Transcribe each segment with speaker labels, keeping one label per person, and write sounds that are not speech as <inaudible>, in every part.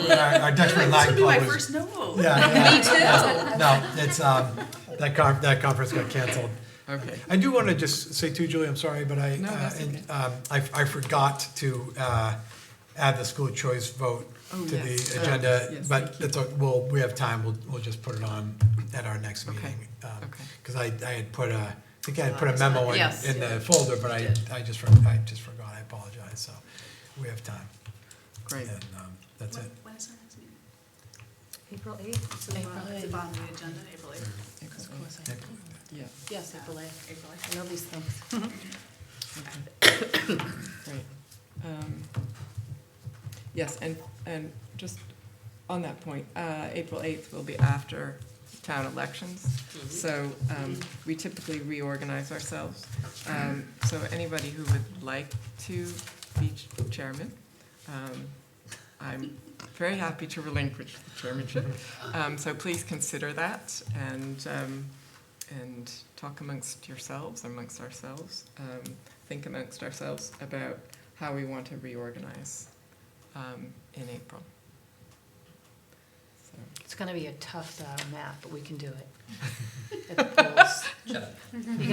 Speaker 1: our,
Speaker 2: <laughs>
Speaker 1: our Dutch Red Lion
Speaker 2: This will be
Speaker 1: Club
Speaker 2: my
Speaker 1: was.
Speaker 2: first no.
Speaker 1: Yeah,
Speaker 2: <laughs>
Speaker 1: yeah.
Speaker 3: Me
Speaker 1: <laughs>
Speaker 3: too.
Speaker 1: No, it's, um, that con, that conference got canceled.
Speaker 2: Okay.
Speaker 1: I do want to just say too, Julie, I'm sorry, but I,
Speaker 2: No,
Speaker 1: uh,
Speaker 2: that's
Speaker 1: and,
Speaker 2: okay.
Speaker 1: um, I, I forgot to, uh, add the school choice vote
Speaker 2: Oh,
Speaker 1: to
Speaker 2: yes.
Speaker 1: the
Speaker 2: Oh,
Speaker 1: agenda,
Speaker 2: yes,
Speaker 1: but
Speaker 2: thank you.
Speaker 1: it's, o- we'll, we have time, we'll, we'll just put it on at our next
Speaker 2: Okay,
Speaker 1: meeting. Um,
Speaker 2: okay.
Speaker 1: Cause I, I had put a, I think I had put a memo in,
Speaker 3: Yes.
Speaker 1: in the folder, but I, I just, for- I just forgot, I apologize, so we have time,
Speaker 2: Great.
Speaker 1: and, um, that's it.
Speaker 2: When is our next meeting?
Speaker 3: April eighth.
Speaker 4: It's at the bottom- it's at the bottom of the agenda, April eighth.
Speaker 2: April
Speaker 3: Of course,
Speaker 1: Yeah.
Speaker 2: Yeah,
Speaker 4: Yes, April eighth. April eighth.
Speaker 3: I know these things.
Speaker 2: okay. <coughs> Great. Um, Yes, and, and just on that point, uh, April 8th will be after town elections. So um, we typically reorganize ourselves. Um, So anybody who would like to be ch- chairman, um, I'm very happy to relinquish the chairmanship. Um, So please consider that and, um, and talk amongst yourselves, amongst ourselves. um, Think amongst ourselves about how we want to reorganize um, in April. So,
Speaker 3: It's gonna be a tough uh, map, but we can do it. At the polls. You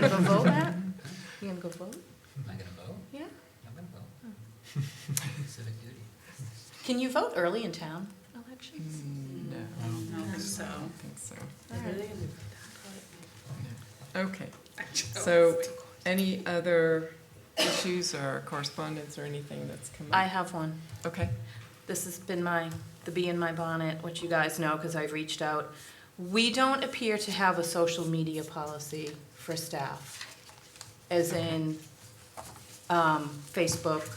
Speaker 3: gonna go vote, Matt? You gonna go vote?
Speaker 5: Am I gonna vote?
Speaker 3: Yeah.
Speaker 5: I'm gonna vote. <laughs> Civic duty.
Speaker 3: Can you vote early in town elections?
Speaker 2: No,
Speaker 4: No,
Speaker 2: I
Speaker 4: so.
Speaker 2: don't think so.
Speaker 3: All right.
Speaker 2: Okay, so any other issues or correspondence or anything that's come
Speaker 3: I
Speaker 2: up?
Speaker 3: have one.
Speaker 2: Okay,
Speaker 3: This has been my, the bee in my bonnet, which you guys know, because I've reached out. We don't appear to have a social media policy for staff. As in, um, Facebook,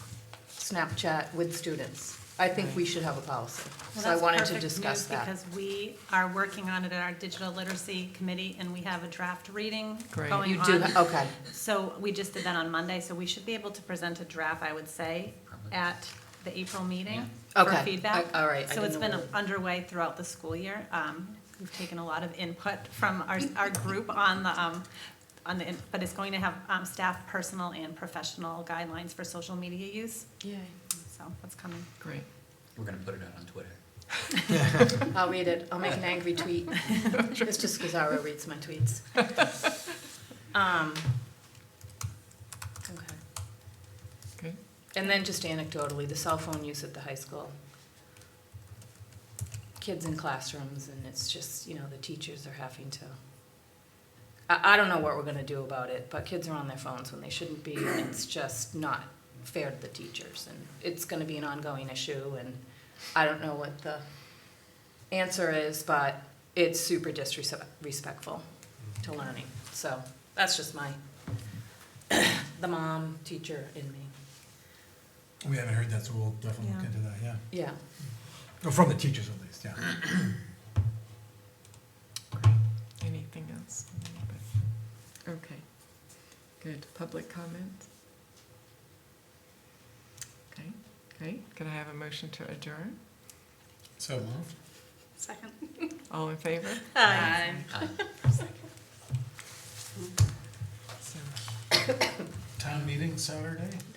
Speaker 3: Snapchat with students. I think we should have a policy.
Speaker 6: Well,
Speaker 3: So I
Speaker 6: that's
Speaker 3: wanted to
Speaker 6: perfect
Speaker 3: discuss
Speaker 6: news
Speaker 3: that.
Speaker 6: Because we are working on it at our digital literacy committee, and we have a draft reading
Speaker 2: Great.
Speaker 6: going
Speaker 3: You do,
Speaker 6: on.
Speaker 3: okay.
Speaker 6: So we just did that on Monday, so we should be able to present a draft, I would say, at the April meeting for
Speaker 3: Okay.
Speaker 6: feedback.
Speaker 3: I- all right. I
Speaker 6: So it's
Speaker 3: didn't
Speaker 6: been
Speaker 3: know
Speaker 6: underway throughout the school year. Um, We've taken a lot of input from our, our group on the, um, on the, in- but it's going to have um, staff personal and professional guidelines for social media use,
Speaker 3: Yay.
Speaker 6: so that's coming.
Speaker 2: great.
Speaker 5: We're gonna put it out on Twitter.
Speaker 3: <laughs> I'll read it. I'll make an angry tweet. It's just Cesaro reads my tweets. Um, Okay.
Speaker 2: Okay.
Speaker 3: And then just anecdotally, the cell phone use at the high school. Kids in classrooms and it's just, you know, the teachers are having to, I, I don't know what we're gonna do about it, but kids are on their phones when they shouldn't be and it's just not fair to the teachers and it's gonna be an ongoing issue and I don't know what the answer is, but it's super disrespectful to learning. So that's just my, <coughs> the mom, teacher in me.
Speaker 1: We haven't heard that, so we'll definitely look
Speaker 6: Yeah.
Speaker 1: into that, yeah.
Speaker 3: Yeah.
Speaker 1: Or From the teachers at least, yeah.
Speaker 2: Anything else? Okay, good. Public comment? Okay, great. Can I have a motion to adjourn?
Speaker 1: So moved.
Speaker 4: Second.
Speaker 2: All in favor?
Speaker 5: Aye.
Speaker 2: So,
Speaker 7: Town meeting Saturday?